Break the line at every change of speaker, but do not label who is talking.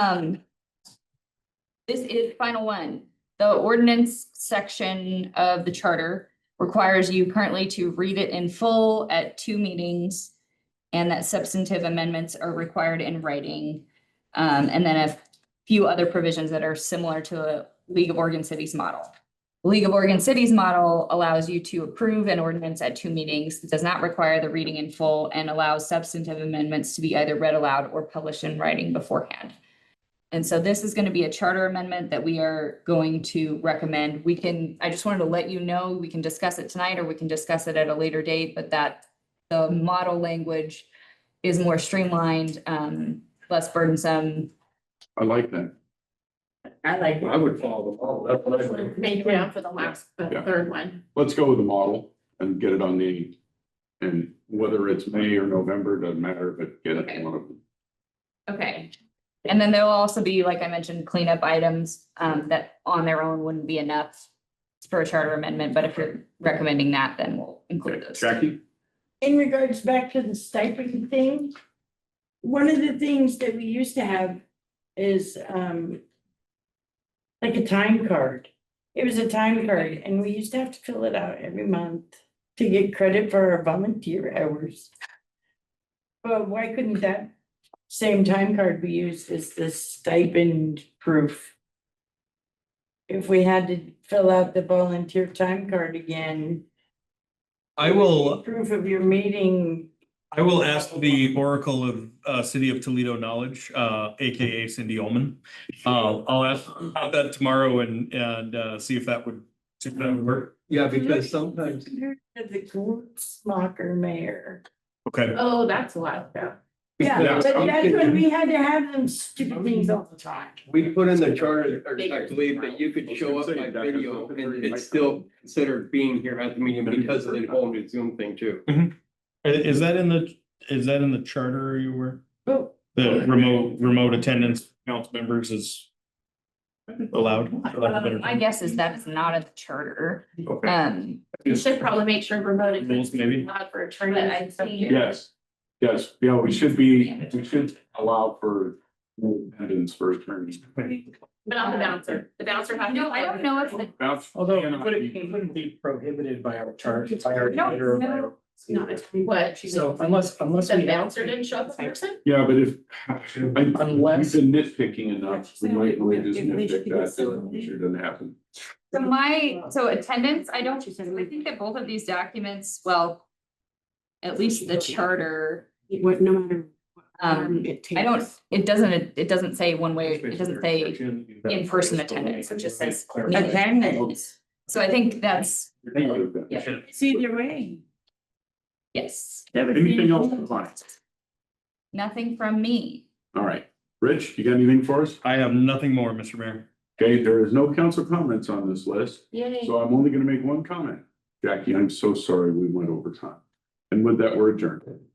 Um. This is final one. The ordinance section of the charter requires you currently to read it in full at two meetings. And that substantive amendments are required in writing. Um, and then a few other provisions that are similar to the League of Oregon Cities model. The League of Oregon Cities model allows you to approve an ordinance at two meetings, does not require the reading in full, and allows substantive amendments to be either read aloud or published in writing beforehand. And so this is going to be a charter amendment that we are going to recommend. We can, I just wanted to let you know, we can discuss it tonight or we can discuss it at a later date, but that the model language is more streamlined, um, less burdensome.
I like that.
I like.
I would follow the model, that's what I would.
Maybe down for the last, the
Yeah.
third one.
Let's go with the model and get it on the, and whether it's May or November, doesn't matter, but get it on one of them.
Okay,
And then there'll also be, like I mentioned, cleanup items, um, that on their own wouldn't be enough for a charter amendment, but if you're recommending that, then we'll include
Okay,
those.
Jackie?
in regards back to the stipend thing, one of the things that we used to have is um like a time card. It was a time card and we used to have to fill it out every month to get credit for our volunteer hours. But why couldn't that same time card be used as the stipend proof? If we had to fill out the volunteer time card again.
I will,
Proof of your meeting.
I will ask the Oracle of uh City of Toledo Knowledge, uh AKA Cindy Olman. Uh I'll ask about that tomorrow and and uh see if that would, see if that would work.
Yeah, because sometimes,
The Gutzmacher mayor.
Okay,
oh, that's a lot, yeah.
Yeah. Oh.
Yeah, but that's when we had to have them stupid things all the time.
we put in the charter, or I believe that you could show up by video and it's still considered being here at the meeting because of the whole new Zoom thing too.
I- is that in the, is that in the charter you were?
Oh.
The remote, remote attendance council members is allowed? for lack of a better
Um, My
term?
guess is that's not a charter.
Okay.
Um,
You should probably make sure remote. is
Rules, maybe?
Not for attorneys and stuff.
Yeah.
Yes, yes, yeah, we should be, we should allow for attendance for attorneys.
But on the bouncer, the bouncer has. to-
No, I don't know if the-
That's-
Although it
cannot
wouldn't,
be-
it wouldn't be prohibited by our charter, by our.
No,
charter or by
no,
our-
Not attorney, what? she
So
was-
unless, unless
The
we.
bouncer didn't show up in person?
Yeah, but if, I,
Unless-
You've been nitpicking enough, we might, we just nitpick that, so it sure doesn't happen.
So my, so attendance, I don't, I think that both of these documents, well, at least the charter,
What, no matter.
um, I don't, it doesn't, it doesn't say one way, it doesn't say, in-person attendance, it just says-
Attendance.
so I think that's,
Anything
It's either way.
yes,
else, compliance?
nothing from me.
All right, Rich, you got anything for us?
I have nothing more, Mr. Mayor.
Okay, there is no council comments on this list,
Yay.
so I'm only gonna make one comment. Jackie, I'm so sorry we went over time. And with that, we're adjourned.